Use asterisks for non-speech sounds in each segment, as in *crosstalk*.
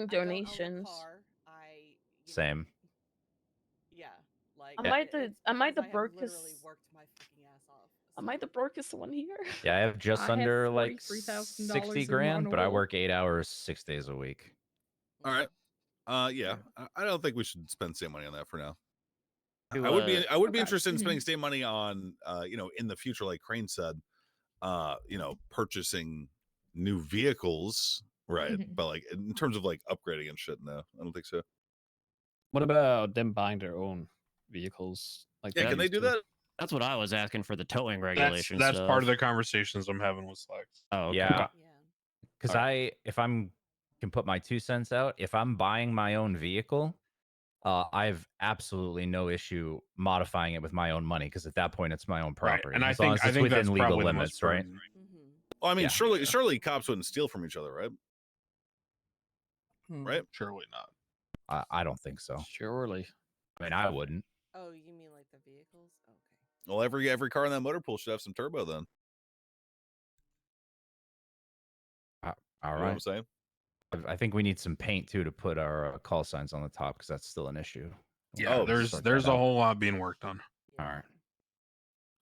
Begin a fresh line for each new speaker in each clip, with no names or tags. I don't own a
donations.
car. I you know,
Same.
yeah. Like
Am I the- am I
because
the
have literally
brokest-
worked my fucking ass off.
Am I the brokest one here? *laughs*
Yeah, I have just
I have
under like
$43,000
sixty
in
grand, but I
Monowil.
work eight hours six days a week.
All right. Uh, yeah, I, I don't think we should spend state money on that for now. I-
Do,
I would
uh,
be I would be
okay.
interested in spending state money on uh, you know in the future, like Crane said, uh, you know, purchasing new vehicles, right?
Mhm.
But like in terms of like upgrading and shit, no, I don't think so.
What about them buying their own vehicles? Like,
Yeah,
that
can they
used
do
to-
that?
That's what I was asking for the towing
That's,
regulations.
that's part of the conversations I'm having with Slack.
Oh, okay.
Yeah.
Yeah.
Because I, if I'm can put my two cents out, if I'm buying my own vehicle, uh, I have absolutely no issue modifying it with my own money. Because at that point, it's my own property.
And I
as long
think
as
I
it's
think
within
that's
legal
probably the
limits,
most
right?
prudent.
Mm-hmm.
Well, I mean,
Yeah.
surely surely cops wouldn't steal from each other, right? Right?
Surely not.
I, I don't think so.
Surely.
I mean, I wouldn't.
Oh, you mean like the vehicles? Okay.
Well, every every car in that motor pool should have some turbo. Then,
All
you know what
right.
I'm saying?
I- I think we need some paint too to put our uh, call signs on the top because that's still an issue. We'll
Yeah,
Oh,
there's
sort that
there's a
out.
whole lot being worked on.
All right.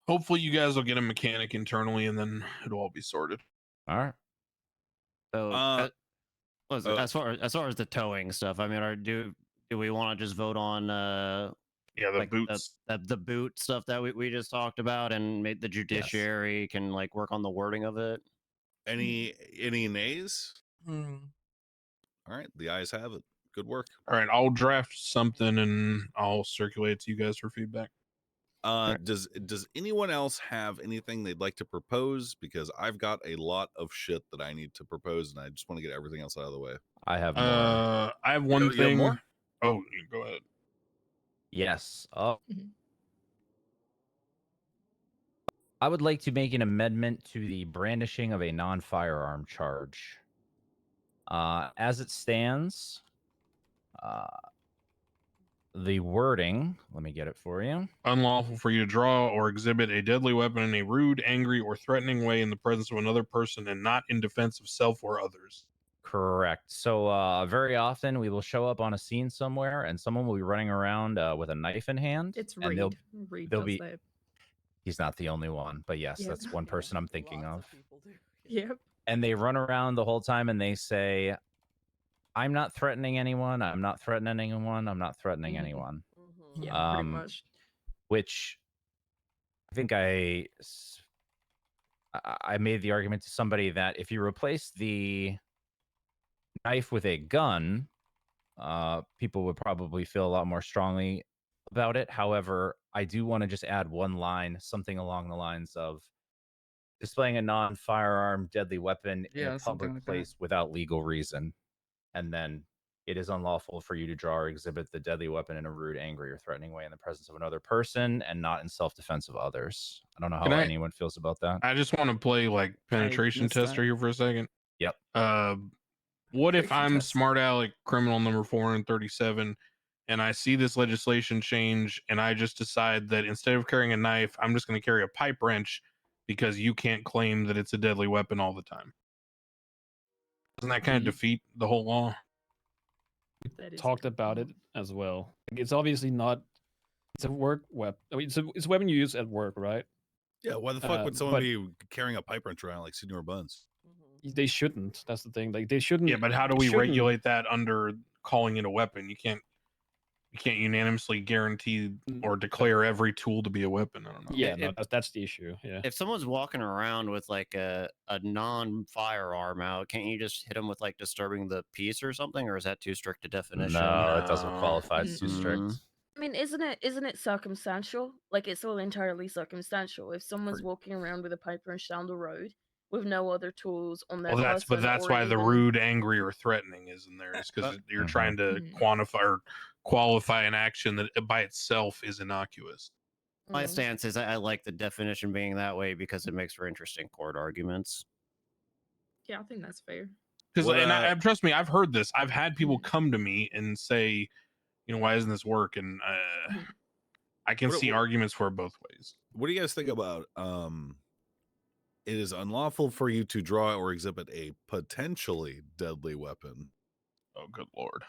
Hopefully, you guys will get a mechanic internally, and then it'll all be sorted.
All right.
So,
Uh,
uh, what is
uh,
it? as far as far as the towing stuff, I mean, are do do we want to just vote on uh
Yeah, the
like
boots.
the, the boot stuff that we, we just talked about, and make the judiciary can like work on the wording of it?
Any any nays? All right, the eyes have it. Good work.
All right, I'll draft something and I'll circulate it to you guys for feedback.
Uh, does does anyone else have anything they'd like to propose? Because I've got a lot of shit that I need to propose, and I just want to get everything else out of the way.
I have. more.
Uh, I have
you
one
have
thing.
more?
Oh, you go ahead.
Yes. Oh.
Mhm.
I would like to make an amendment to the brandishing of a non firearm charge. Uh, as it stands, uh, the wording, let me get it for you.
Unlawful for you to draw or exhibit a deadly weapon in a rude, angry, or threatening way in the presence of another person, and not in defense of self or others.
Correct. So, uh, very often we will show up on a scene somewhere and someone will be running around uh, with a knife in hand.
It's
and they'll-
Reed. Reed
they'll
does
be-
that.
He's not the only one, but yes,
Yeah.
*laughs*
that's one
Yeah,
person I'm thinking
lots
of.
people do. *laughs*
Yep.
and they run around the whole time and they say i'm not threatening anyone i'm not threatening anyone i'm not threatening
Mhm.
anyone
Mhm.
Yeah, pretty
Um,
much.
which i think i s- I- i made the argument to somebody that if you replace the knife with a gun uh people would probably feel a lot more strongly about it however i do want to just add one line something along the lines of displaying a non-firearm deadly weapon in
Yeah,
a
something
public
like that.
place without legal reason and then it is unlawful for you to draw or exhibit the deadly weapon in a rude, angry, or threatening way in the presence of another person and not in self defense of others. I don't know how
Can I-
anyone feels about that.
I just want to play like penetration
missed that.
tester here for a second.
Yep.
Uh, what if
Penetration
I'm
test.
smart aleck criminal number 437 and I see this legislation change and I just decide that instead of carrying a knife, I'm just going to carry a pipe wrench because you can't claim that it's a deadly weapon all the time? Doesn't that kind of
Ye-
defeat the whole law?
That is
talked
good.
about it as well. Like, It's obviously not. It's a work web. I mean, it's a, it's a weapon you use at work, right?
Yeah, why the fuck
Uh,
would someone
but-
be carrying a pipe wrench around like Senior Buns?
Mhm.
They shouldn't. That's the thing. Like they shouldn't.
Yeah, but how do we
Hmm. shouldn't-
regulate that under calling it a weapon? You can't. You can't unanimously guarantee or declare every tool to be a weapon. I don't know.
Yeah,
If-
no,
if-
that's, that's the issue. Yeah.
if someone's walking around with like a, a non firearm out, can't you just hit them with like disturbing the peace or something? Or is that too strict a definition?
No, it doesn't
No.
qualify. It's too strict.
Mm-mm.
I mean, isn't it isn't it circumstantial? Like it's all entirely circumstantial. If someone's walking around with a pipe wrench down the road with no other tools on their
Well, that's but
person
that's
or
why the
even-
rude, angry, or threatening is in there.
Uh,
Is because you're
mm-hmm.
Mhm.
trying to
Mhm.
quantify or qualify an action that it by itself is innocuous.
My
Mm.
stance is I, I like the definition being that way because it makes for interesting court arguments.
Yeah, I think that's fair.
Because
What,
and I,
uh,
and trust me, I've heard this. I've had people come to me and say, you know, why doesn't this work? And uh,
Mhm.
I can
What-
see
what-
arguments for it both ways.
What do you guys think about? Um, it is unlawful for you to draw or exhibit a potentially deadly weapon
Oh, good lord.